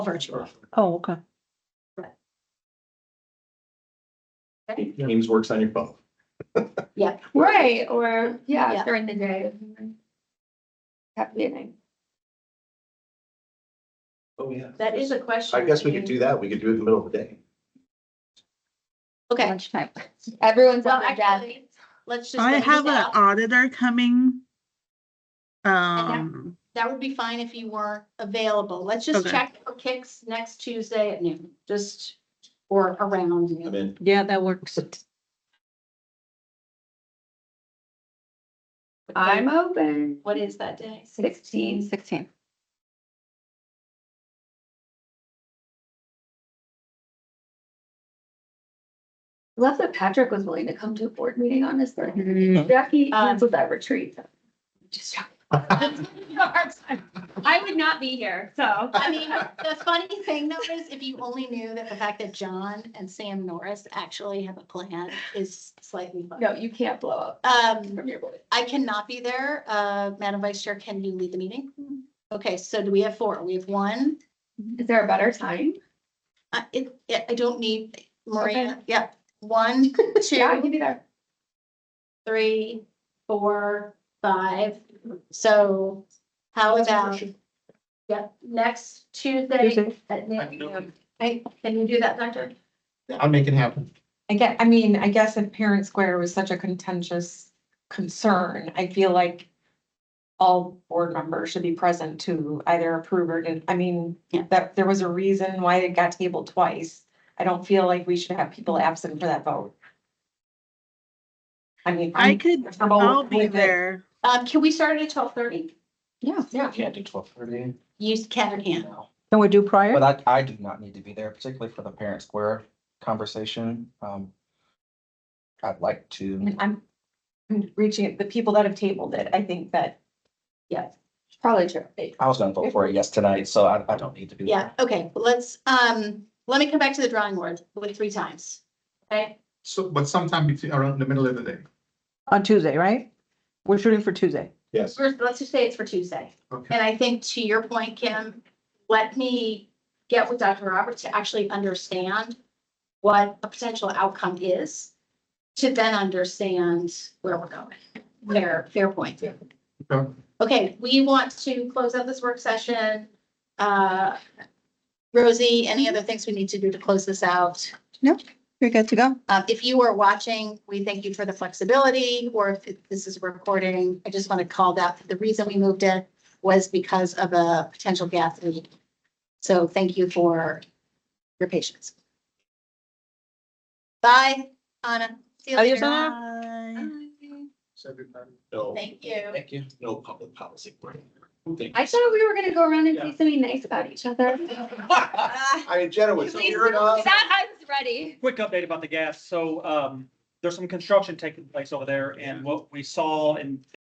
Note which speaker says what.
Speaker 1: virtual.
Speaker 2: Oh, okay.
Speaker 3: Teams works on your phone.
Speaker 4: Right, or,
Speaker 1: Yeah.
Speaker 4: yeah, during the day. Happy meeting.
Speaker 3: Oh, yeah.
Speaker 1: That is a question.
Speaker 3: I guess we could do that. We could do it in the middle of the day.
Speaker 1: Okay,
Speaker 2: Lunchtime.
Speaker 4: Everyone's
Speaker 1: well,
Speaker 4: on their desk.
Speaker 1: actually, let's just.
Speaker 5: I
Speaker 1: let you
Speaker 5: have an
Speaker 1: know.
Speaker 5: auditor coming.
Speaker 1: that-
Speaker 5: Um,
Speaker 1: That would be fine if you weren't available. Let's just
Speaker 5: Okay.
Speaker 1: check for kicks next Tuesday at noon, just, or around
Speaker 3: I
Speaker 1: noon.
Speaker 3: mean,
Speaker 2: Yeah, that works.
Speaker 4: I'm open.
Speaker 1: What is that day?
Speaker 4: Sixteen.
Speaker 2: Sixteen.
Speaker 4: Love that Patrick was willing to come to a board meeting on his birthday.
Speaker 2: Mm-hmm.
Speaker 4: Jackie
Speaker 1: Um,
Speaker 4: canceled that retreat. Just joking. I would not be here, so.
Speaker 1: I mean, the funny thing though is if you only knew that the fact that John and Sam Norris actually have a plan is slightly funny.
Speaker 4: No, you can't blow up
Speaker 1: Um,
Speaker 4: from your voice.
Speaker 1: I cannot be there. Uh, Madam Vice Chair, can you lead the meeting?
Speaker 4: Mm-hmm.
Speaker 1: Okay, so do we have four? We have one,
Speaker 4: Is there a better time?
Speaker 1: I, it, yeah, I don't need Maria,
Speaker 4: Okay.
Speaker 1: yep, one,
Speaker 4: Yeah, I
Speaker 1: two,
Speaker 4: can be there.
Speaker 1: three, four, five. So how about, yep, next Tuesday at noon? Hey, can you do that, Doctor?
Speaker 3: I'll make it happen.
Speaker 6: I get, I mean, I guess if Parent Square was such a contentious concern, I feel like all board members should be present to either approve or, didn't- I mean,
Speaker 1: Yeah.
Speaker 6: that there was a reason why it got tabled twice. I don't feel like we should have people absent for that vote. I mean.
Speaker 5: I
Speaker 6: I'm
Speaker 5: could,
Speaker 6: comfortable
Speaker 5: I'll be
Speaker 6: with it.
Speaker 5: there.
Speaker 1: Um, can we start at twelve thirty?
Speaker 6: Yeah, yeah.
Speaker 3: Can't do twelve thirty.
Speaker 1: You can or can't?
Speaker 2: Can we do prior?
Speaker 7: But I, I do not need to be there, particularly for the parent square conversation. Um, I'd like
Speaker 6: I
Speaker 7: to,
Speaker 6: mean, I'm, I'm reaching, the people that have tabled it, I think that
Speaker 1: Yes.
Speaker 4: Probably true.
Speaker 7: I was gonna vote for a yes tonight, so I, I don't need to be
Speaker 1: Yeah,
Speaker 7: there.
Speaker 1: okay, Well, let's, um, let me come back to the drawing board with three times. Okay,
Speaker 8: So, but sometime between, around the middle of the day.
Speaker 2: On Tuesday, right? We're shooting for Tuesday.
Speaker 3: Yes.
Speaker 1: first, let's just say it's for Tuesday.
Speaker 8: Okay.
Speaker 1: And I think to your point, Kim, let me get with Dr. Roberts to actually understand what a potential outcome is, to then understand where we're going. Fair, fair point.
Speaker 8: Okay.
Speaker 1: Okay, we want to close out this work session. Uh, Rosie, any other things we need to do to close this out?
Speaker 2: You're good to go.
Speaker 1: Uh, if you are watching, we thank you for the flexibility, or if this is recording, I just want to call that, the reason we moved it was because of a potential gas leak. So thank you for your patience. Bye, Anna. See you
Speaker 2: Adios,
Speaker 1: later.
Speaker 2: Anna.
Speaker 5: Bye.
Speaker 3: No,
Speaker 1: Thank you.
Speaker 7: Thank you.
Speaker 3: no public policy. Thank
Speaker 4: I
Speaker 3: you.
Speaker 4: thought we were gonna go around and say something nice about each other.
Speaker 3: I mean, Jenna was here enough.
Speaker 4: That I was ready.
Speaker 9: quick update about the gas. So um, there's some construction taking place over there and what we saw and